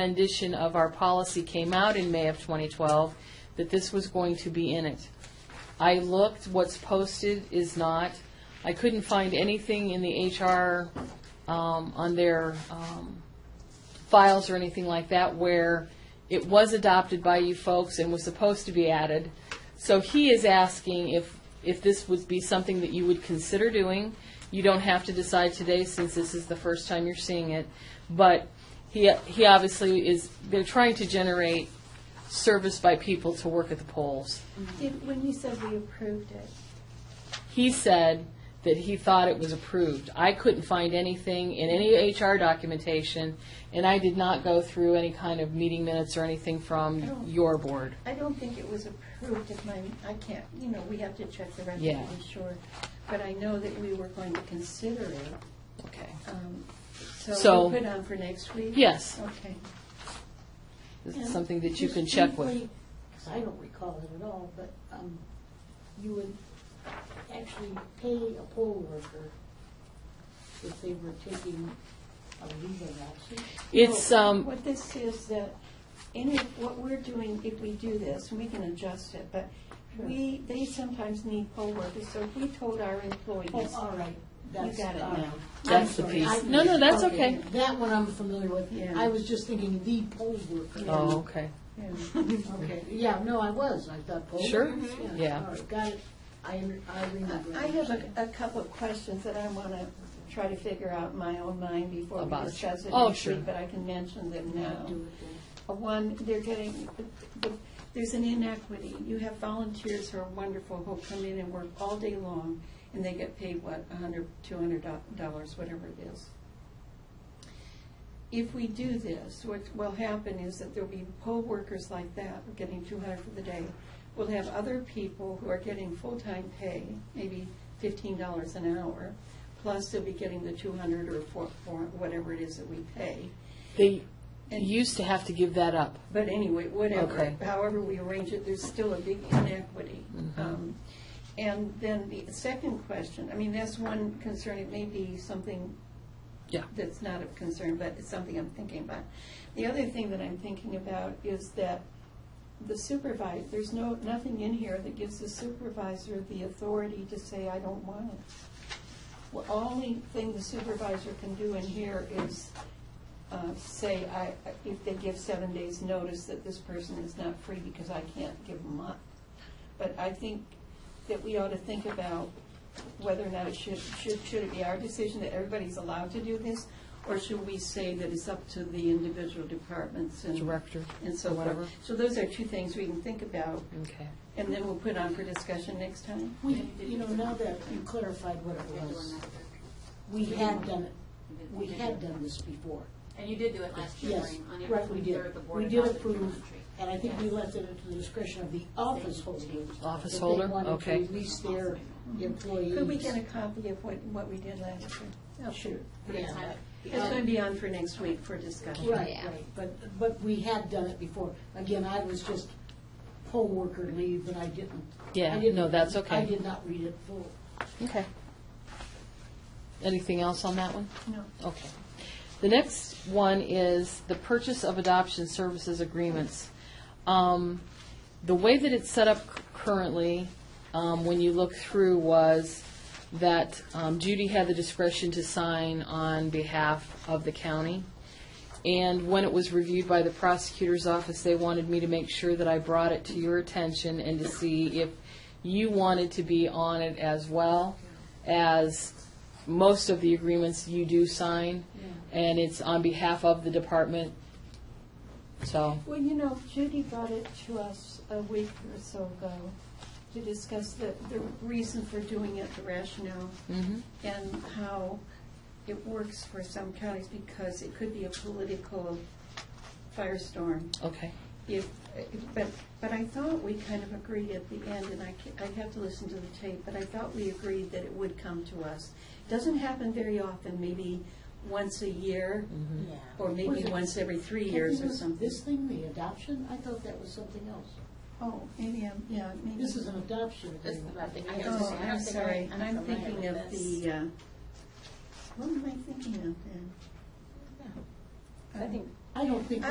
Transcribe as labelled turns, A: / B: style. A: rendition of our policy came out in May of 2012, that this was going to be in it. I looked, what's posted is not. I couldn't find anything in the HR, um, on their um, files or anything like that where it was adopted by you folks and was supposed to be added. So he is asking if, if this would be something that you would consider doing. You don't have to decide today since this is the first time you're seeing it. But he, he obviously is, they're trying to generate service by people to work at the polls.
B: Did, when you said we approved it,
A: He said that he thought it was approved. I couldn't find anything in any HR documentation, and I did not go through any kind of meeting minutes or anything from
B: Oh.
A: your board.
B: I don't think it was approved if my, I can't, you know, we have to check the record
A: Yeah.
B: to be sure. But I know that we were going to consider it,
A: Okay.
B: um,
A: So-
B: so we put on for next week?
A: Yes.
B: Okay.
A: This
C: And
A: is something that you
C: just
A: can check with.
C: briefly, 'cause I don't recall it at all, but um, you would actually pay a poll worker if they were taking a legal action.
A: It's,
B: Well,
A: um,
B: What this is that, any, what we're doing, if we do this, we can adjust it, but
C: Sure.
B: we, they sometimes need poll workers, so if we told our employees,
C: Oh, all right. That's-
B: got it
C: all right.
B: now.
A: That's
C: I'm
A: the
C: sorry,
A: piece.
C: I-
A: No, no, that's okay.
C: That one I'm familiar with.
B: Yeah.
C: I was just thinking the poll worker.
A: oh, okay.
B: yeah,
C: Okay, yeah, no, I was. I thought poll.
A: Sure,
C: workers,
A: yeah.
C: All right, got it. I under- I remember.
B: I have a, a couple of questions that I want to try to figure out in my own mind before we
A: About it.
B: discuss it
A: Oh,
B: next
A: sure.
B: week, but I can mention them now.
C: Do it then.
B: Uh, One, they're getting, the- there's an inequity. You have volunteers who are wonderful, who come in and work all day long, and they get paid, what, a hundred, two hundred dollars, whatever it is. If we do this, what will happen is that there'll be poll workers like that, getting two hundred for the day. We'll have other people who are getting full-time pay, maybe fifteen dollars an hour, plus they'll be getting the two hundred or four, four, whatever it is that we pay.
A: They
B: And-
A: used to have to give that up.
B: But anyway, whatever,
A: Okay.
B: however we arrange it, there's still a big inequity. Um, And then the second question, I mean, that's one concern, it may be something
A: Yeah.
B: that's not of concern, but it's something I'm thinking about. The other thing that I'm thinking about is that the supervisor, there's no, nothing in here that gives the supervisor the authority to say, I don't want it. The only thing the supervisor can do in here is uh, say, I, if they give seven days' notice that this person is not free because I can't give them up. But I think that we ought to think about whether or not it should, should, should it be our decision that everybody's allowed to do this? Or should we say that it's up to the individual departments and.
A: Director,
B: And so
A: whatever.
B: forth. So those are two things we can think about,
A: Okay.
B: and then we'll put on for discussion next time.
C: We, you know, now that you clarified what it was, we had done it, we had done this before.
D: And you did do it last year,
C: Yes,
D: Maureen, on April
C: right, we did.
D: 23rd, the board
C: We did
D: adopted the
C: approve,
D: country.
C: and I think we left it to the discretion of the office holder.
A: Office
C: if they
A: holder,
C: wanted to
A: okay.
C: Release their employees.
B: Could we get a copy of what, what we did last year?
C: Oh, Sure,
D: Yes,
C: yeah.
D: I-
B: It's going to be on for next week for discussion.
C: Right, right, but, but we had done it before. Again, I was just poll worker leave, and I didn't.
A: Yeah,
C: I didn't-
A: no, that's okay.
C: I did not read it full.
A: Okay. Anything else on that one?
B: No.
A: Okay. The next one is the purchase of adoption services agreements. Um, The way that it's set up c- currently, um, when you look through, was that um, Judy had the discretion to sign on behalf of the county. And when it was reviewed by the prosecutor's office, they wanted me to make sure that I brought it to your attention and to see if you wanted to be on it as well as most of the agreements you do sign, and it's on behalf of the department. So,
B: Well, you know, Judy brought it to us a week or so ago to discuss the, the reason for doing it, the rationale,
A: mhm,
B: and how it works for some counties because it could be a political firestorm.
A: okay.
B: If, but, but I thought we kind of agreed at the end, and I, ca- I'd have to listen to the tape, but I thought we agreed that it would come to us. Doesn't happen very often, maybe once a year,
D: Mm-hmm.
C: Yeah.
B: or maybe once every three years or something.
C: This thing, the adoption, I thought that was something else.
B: Oh, maybe I'm, yeah, maybe.
C: This is an adoption
D: This is
C: agreement.
D: what I think. I
B: Oh, I'm
D: don't think I-
B: sorry,
D: I'm
B: I'm
D: familiar
B: thinking of
D: with this.
B: the, uh, what am I thinking of then?
D: Yeah.
C: I don't think